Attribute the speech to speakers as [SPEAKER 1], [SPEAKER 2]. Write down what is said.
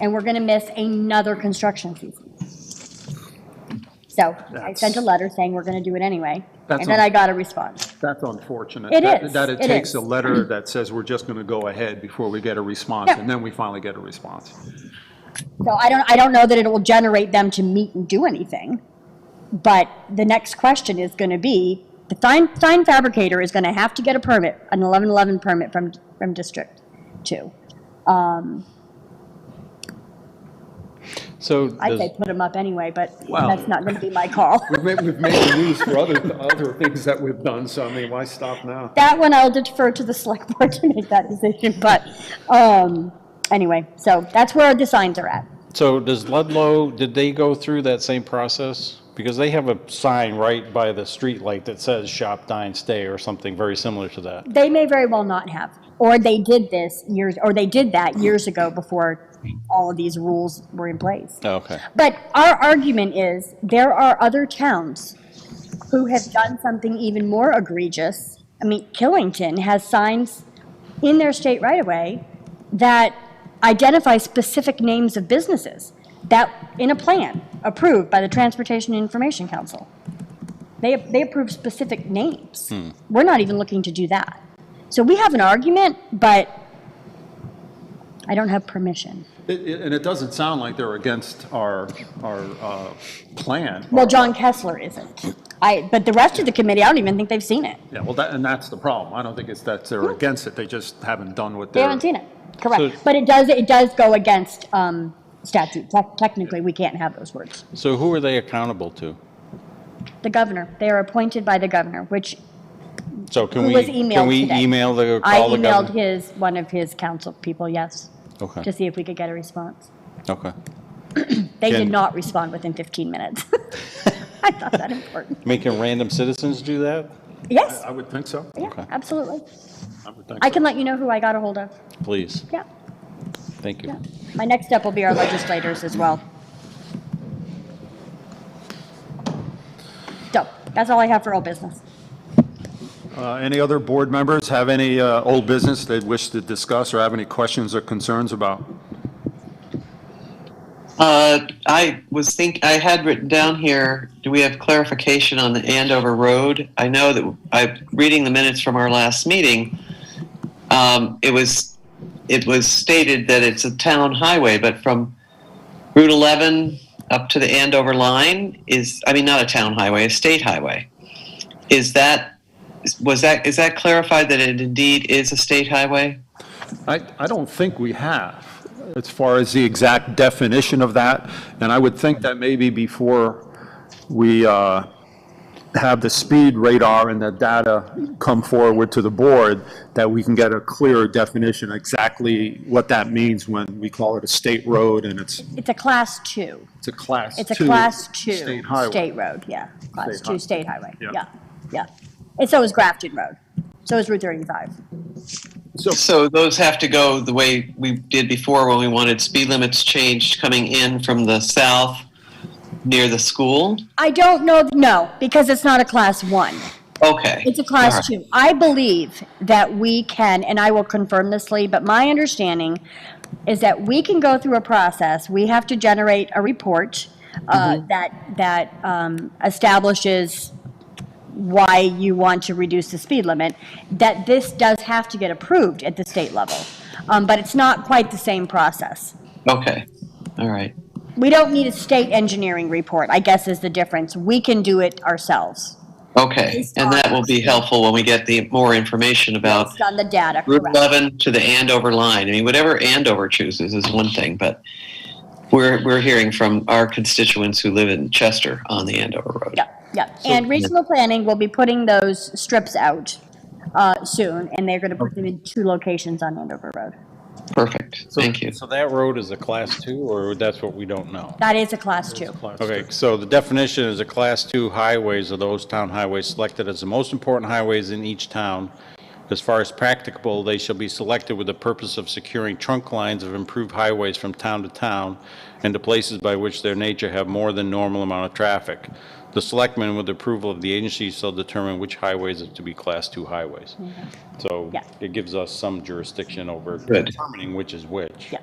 [SPEAKER 1] and we're going to miss another construction season. So I sent a
[SPEAKER 2] That's-
[SPEAKER 1] letter saying we're going to do it anyway,
[SPEAKER 2] That's
[SPEAKER 1] and then
[SPEAKER 2] un-
[SPEAKER 1] I got a response.
[SPEAKER 2] That's unfortunate.
[SPEAKER 1] It
[SPEAKER 2] That-
[SPEAKER 1] is,
[SPEAKER 2] That it
[SPEAKER 1] it
[SPEAKER 2] takes
[SPEAKER 1] is.
[SPEAKER 2] a letter that says we're just going to go ahead before we get a response,
[SPEAKER 1] Yeah.
[SPEAKER 2] and then we finally get a response.
[SPEAKER 1] So I don't, I don't know that it will generate them to meet and do anything, but the next question is going to be, the sign, sign fabricator is going to have to get a permit, an 1111 permit from, from District 2.
[SPEAKER 3] So
[SPEAKER 1] I'd
[SPEAKER 3] does-
[SPEAKER 1] say put them up anyway, but
[SPEAKER 2] Well-
[SPEAKER 1] that's not going to be my call.
[SPEAKER 2] We've made, we've made the news for other, other things that we've done, so I mean, why stop now?
[SPEAKER 1] That one I'll defer to the select board to make that decision, but, um, anyway, so that's where the signs are at.
[SPEAKER 3] so does Ludlow, did they go through that same process? Because they have a sign right by the street light that says shop, dine, stay or something very similar to that.
[SPEAKER 1] They may very well not have, or they did this years, or they did that years ago before all of these rules were in place.
[SPEAKER 4] Oh,
[SPEAKER 3] Okay.
[SPEAKER 1] But our argument is, there are other towns who have done something even more egregious. I mean, Killington has signs in their state right-of-way that identify specific names of businesses that, in a plan approved by the Transportation Information Council. They, they approve specific names. We're not even looking to do that. So we have an argument, but I don't have permission.
[SPEAKER 2] It- it- And it doesn't sound like they're against our, our uh, plan.
[SPEAKER 1] Well, John Kessler isn't. I, but the rest of the committee, I don't even think they've seen it.
[SPEAKER 2] Yeah, well, that, and that's the problem. I don't think it's that they're against it, they just haven't done what
[SPEAKER 1] They
[SPEAKER 2] they're.
[SPEAKER 1] haven't seen it. Correct.
[SPEAKER 3] So-
[SPEAKER 1] But it does, it does go against um, statute. Tec- Technically, we can't have those words.
[SPEAKER 3] So who are they accountable to?
[SPEAKER 1] The governor, they are appointed by the governor, which
[SPEAKER 3] So can
[SPEAKER 1] who
[SPEAKER 3] we,
[SPEAKER 1] was emailed
[SPEAKER 3] can we
[SPEAKER 1] today.
[SPEAKER 3] email the,
[SPEAKER 1] I
[SPEAKER 3] call the
[SPEAKER 1] emailed
[SPEAKER 3] governor?
[SPEAKER 1] his, one of his council people, yes, to
[SPEAKER 3] Okay,
[SPEAKER 1] see if we could get a response.
[SPEAKER 3] okay.
[SPEAKER 1] They did
[SPEAKER 3] Can-
[SPEAKER 1] not respond within 15 minutes. I thought that important.
[SPEAKER 3] Making random citizens do that?
[SPEAKER 1] Yes,
[SPEAKER 2] I would think so.
[SPEAKER 1] yeah,
[SPEAKER 3] Okay.
[SPEAKER 1] absolutely.
[SPEAKER 2] I would think
[SPEAKER 1] I
[SPEAKER 2] so.
[SPEAKER 1] can let you know who I got a hold of.
[SPEAKER 3] Please,
[SPEAKER 1] Yeah,
[SPEAKER 3] thank you.
[SPEAKER 1] yeah. My next step will be our legislators as well. So that's all I have for old business.
[SPEAKER 2] Uh, Any other board members have any uh, old business they wish to discuss or have any questions or concerns about?
[SPEAKER 4] Uh, I was think, I had written down here, do we have clarification on the Andover Road? I know that I, reading the minutes from our last meeting, um, it was, it was stated that it's a town highway, but from Route 11 up to the Andover line is, I mean, not a town highway, a state highway. Is that, was that, is that clarified that it indeed is a state highway?
[SPEAKER 2] I, I don't think we have, as far as the exact definition of that, and I would think that maybe before we uh, have the speed radar and the data come forward to the board, that we can get a clearer definition exactly what that means when we call it a state road and it's,
[SPEAKER 1] It's a class two.
[SPEAKER 2] it's a class two.
[SPEAKER 1] It's a class two.
[SPEAKER 2] State highway.
[SPEAKER 1] State road, yeah. Class
[SPEAKER 2] State
[SPEAKER 1] two
[SPEAKER 2] hi-
[SPEAKER 1] state highway,
[SPEAKER 2] Yeah.
[SPEAKER 1] yeah, yeah. And so is Grafton Road. So is Route 35.
[SPEAKER 4] So those have to go the way we did before when we wanted speed limits changed coming in from the south near the school?
[SPEAKER 1] I don't know, no, because it's not a class one.
[SPEAKER 4] Okay.
[SPEAKER 1] It's a class two. I believe that we can, and I will confirm this, Lee, but my understanding is that we can go through a process. We have to generate a report uh, that, that um, establishes why you want to reduce the speed limit, that this does have to get approved at the state level. Um, But it's not quite the same process.
[SPEAKER 4] Okay. All right.
[SPEAKER 1] We don't need a state engineering report, I guess is the difference. We can do it ourselves,
[SPEAKER 4] Okay. And that will be helpful when we get the more information about
[SPEAKER 1] based on the data,
[SPEAKER 4] Route
[SPEAKER 1] correct?
[SPEAKER 4] 11 to the Andover line. I mean, whatever Andover chooses is one thing, but we're, we're hearing from our constituents who live in Chester on the Andover Road.
[SPEAKER 1] Yeah, yeah. And regional planning will be putting those strips out uh, soon, and they're going to put them in two locations on Andover Road.
[SPEAKER 4] Perfect.
[SPEAKER 3] So-
[SPEAKER 4] Thank you.
[SPEAKER 3] So that road is a class two, or that's what we don't know?
[SPEAKER 1] That is a class two.
[SPEAKER 3] Okay, so the definition is a class two highways are those town highways selected as the most important highways in each town. As far as practicable, they shall be selected with the purpose of securing trunk lines of improved highways from town to town and to places by which their nature have more than normal amount of traffic. The selectmen, with approval of the agency, shall determine which highways are to be class two highways. So
[SPEAKER 1] Mm-hmm. Yeah.
[SPEAKER 3] it gives us some jurisdiction over
[SPEAKER 4] Good.
[SPEAKER 3] determining which is which.
[SPEAKER 1] Yeah.